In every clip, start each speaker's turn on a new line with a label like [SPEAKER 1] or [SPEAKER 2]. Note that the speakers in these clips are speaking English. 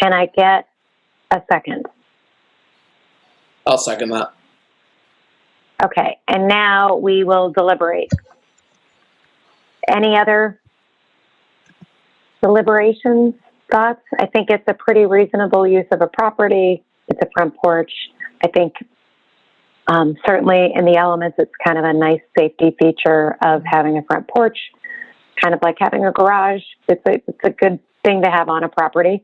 [SPEAKER 1] Can I get a second?
[SPEAKER 2] I'll second that.
[SPEAKER 1] Okay, and now we will deliberate. Any other deliberations, thoughts? I think it's a pretty reasonable use of a property. It's a front porch. I think um, certainly in the elements, it's kind of a nice safety feature of having a front porch, kind of like having a garage. It's a, it's a good thing to have on a property.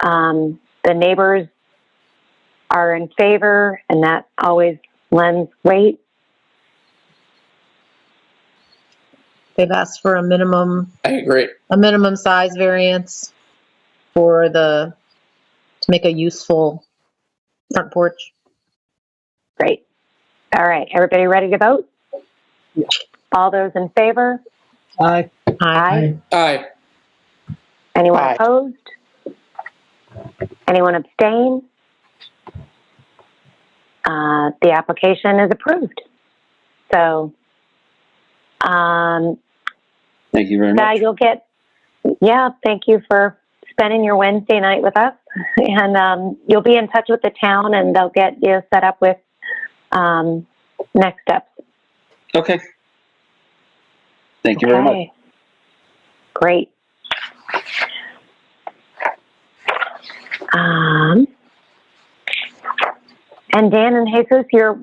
[SPEAKER 1] Um, the neighbors are in favor, and that always lends weight.
[SPEAKER 3] They've asked for a minimum,
[SPEAKER 2] I agree.
[SPEAKER 3] a minimum size variance for the, to make a useful front porch.
[SPEAKER 1] Great. All right, everybody ready to vote?
[SPEAKER 4] Yeah.
[SPEAKER 1] All those in favor?
[SPEAKER 4] Aye.
[SPEAKER 3] Aye.
[SPEAKER 2] Aye.
[SPEAKER 1] Anyone
[SPEAKER 4] Aye.
[SPEAKER 1] opposed? Anyone abstain? Uh, the application is approved. So, um,
[SPEAKER 5] Thank you very
[SPEAKER 1] Now
[SPEAKER 5] much.
[SPEAKER 1] you'll get, yeah, thank you for spending your Wednesday night with us. And um, you'll be in touch with the town and they'll get you set up with um, next steps.
[SPEAKER 5] Okay. Thank you very much.
[SPEAKER 1] Okay. Great. Um, and Dan and Jesus, you're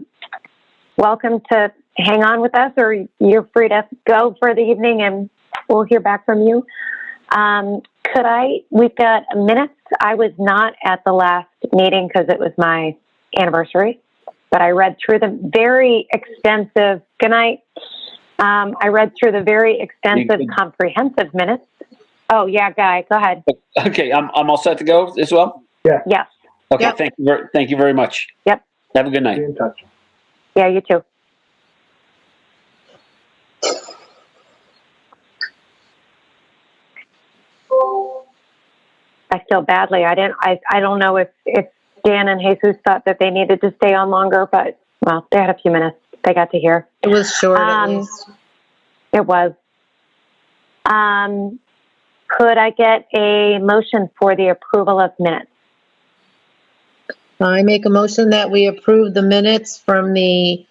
[SPEAKER 1] welcome to hang on with us, or you're free to go for the evening, and we'll hear back from you. Um, could I? We've got minutes. I was not at the last meeting because it was my anniversary, but I read through the very extensive. Good night. Um, I read through the very extensive,
[SPEAKER 5] You-
[SPEAKER 1] comprehensive minutes. Oh yeah, Guy, go ahead.
[SPEAKER 5] Okay, I'm, I'm all set to go as well?
[SPEAKER 1] Yes.
[SPEAKER 5] Okay,
[SPEAKER 3] Yep.
[SPEAKER 5] thank you, ver- thank you very much.
[SPEAKER 1] Yep.
[SPEAKER 5] Have a good
[SPEAKER 4] Be
[SPEAKER 5] night.
[SPEAKER 4] in touch.
[SPEAKER 1] Yeah, you too. I feel badly. I didn't. I. I don't know if if Dan and Jesus thought that they needed to stay on longer, but well, they had a few minutes. They got to hear.
[SPEAKER 3] It was short at
[SPEAKER 1] Um,
[SPEAKER 3] least.
[SPEAKER 1] It was. Um, could I get a motion for the approval of minutes?
[SPEAKER 3] I make a motion that we approve the minutes from the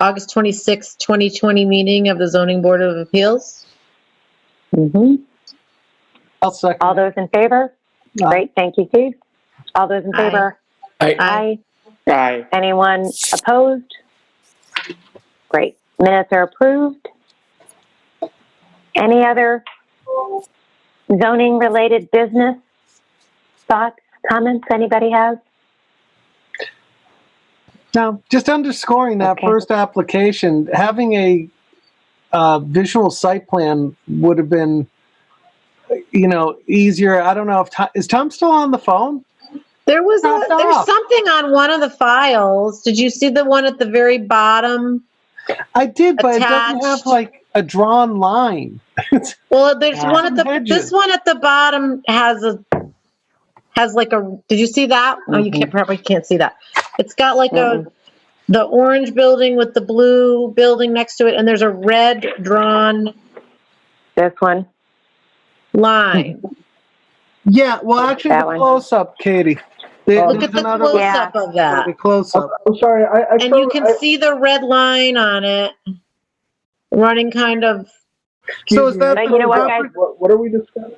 [SPEAKER 3] August 26th, 2020 meeting of the zoning board of appeals.
[SPEAKER 1] Mm-hmm.
[SPEAKER 4] I'll second.
[SPEAKER 1] All those in favor?
[SPEAKER 4] Aye.
[SPEAKER 1] Great. Thank you, Keith. All those in
[SPEAKER 3] Aye.
[SPEAKER 1] favor?
[SPEAKER 2] Aye.
[SPEAKER 3] Aye.
[SPEAKER 2] Aye.
[SPEAKER 1] Anyone opposed? Great. Minutes are approved. Any other zoning related business? Thoughts, comments anybody has?
[SPEAKER 4] Now, just underscoring that
[SPEAKER 1] Okay.
[SPEAKER 4] first application, having a uh, visual site plan would have been, you know, easier. I don't know if Tom, is Tom still on the phone?
[SPEAKER 3] There was a,
[SPEAKER 4] Crossed
[SPEAKER 3] there's
[SPEAKER 4] off.
[SPEAKER 3] something on one of the files. Did you see the one at the very bottom?
[SPEAKER 4] I did, but it doesn't have
[SPEAKER 3] Attached.
[SPEAKER 4] like a drawn line.
[SPEAKER 3] Well, there's
[SPEAKER 4] Yeah.
[SPEAKER 3] one at the,
[SPEAKER 4] Hedges.
[SPEAKER 3] this one at the bottom has a, has like a, did you see that? Oh,
[SPEAKER 4] Mm-hmm.
[SPEAKER 3] you can't, probably can't see that. It's got like a, the orange building with the blue building next to it, and there's a red drawn
[SPEAKER 1] This one?
[SPEAKER 3] line.
[SPEAKER 4] Mm-hmm. Yeah, well, actually,
[SPEAKER 1] That
[SPEAKER 4] the
[SPEAKER 1] one.
[SPEAKER 4] close up, Katie. There-
[SPEAKER 3] Look at the
[SPEAKER 4] there's another
[SPEAKER 3] close
[SPEAKER 1] Yeah.
[SPEAKER 3] up of that.
[SPEAKER 4] the close up.
[SPEAKER 1] Oh.
[SPEAKER 6] I'm sorry, I, I
[SPEAKER 3] And you
[SPEAKER 6] couldn't,
[SPEAKER 3] can
[SPEAKER 6] I-
[SPEAKER 3] see the red line on it running kind of,
[SPEAKER 4] So is that
[SPEAKER 1] But
[SPEAKER 4] the
[SPEAKER 1] you know what,
[SPEAKER 4] proper-
[SPEAKER 1] guys?
[SPEAKER 6] what, what are we discussing?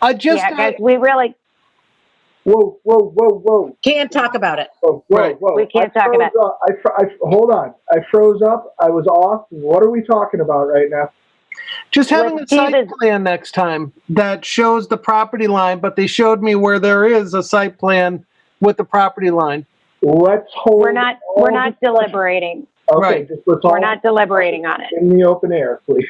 [SPEAKER 4] I just
[SPEAKER 1] yeah, guys, we really
[SPEAKER 6] Whoa, whoa, whoa, whoa,
[SPEAKER 3] can't talk about it.
[SPEAKER 6] whoa, whoa,
[SPEAKER 4] Right.
[SPEAKER 6] whoa.
[SPEAKER 1] We can't
[SPEAKER 6] I
[SPEAKER 1] talk about-
[SPEAKER 6] froze up. I, fr- I, hold on, I froze up, I was off, what are we talking about right now?
[SPEAKER 4] Just having a
[SPEAKER 1] Let's do
[SPEAKER 4] site
[SPEAKER 1] this.
[SPEAKER 4] plan next time that shows the property line, but they showed me where there is a site plan with the property line.
[SPEAKER 6] Let's hold.
[SPEAKER 1] we're not
[SPEAKER 6] all
[SPEAKER 1] we're not deliberating.
[SPEAKER 6] the- Okay,
[SPEAKER 4] Right.
[SPEAKER 6] just let's
[SPEAKER 1] We're
[SPEAKER 6] all
[SPEAKER 1] not deliberating on it.
[SPEAKER 6] in the open air, please.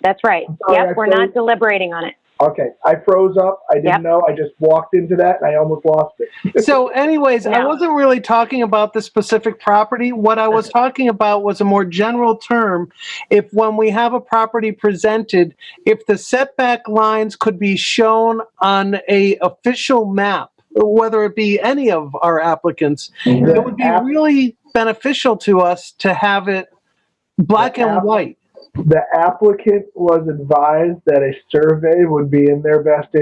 [SPEAKER 1] That's right.
[SPEAKER 6] sorry,
[SPEAKER 1] Yep,
[SPEAKER 6] I
[SPEAKER 1] we're
[SPEAKER 6] froze.
[SPEAKER 1] not deliberating on it.
[SPEAKER 6] Okay, I froze up, I
[SPEAKER 1] Yep.
[SPEAKER 6] didn't know, I just walked into that and I almost lost it.
[SPEAKER 4] So, anyways, I
[SPEAKER 1] No.
[SPEAKER 4] wasn't really talking about the specific property. What I was talking about was a more general term. If when we have a property presented, if the setback lines could be shown on a official map, whether it be any of our applicants, it would be
[SPEAKER 6] The app-
[SPEAKER 4] really beneficial to us to have it black
[SPEAKER 6] The app-
[SPEAKER 4] and white.
[SPEAKER 6] The applicant was advised that a survey would be in their best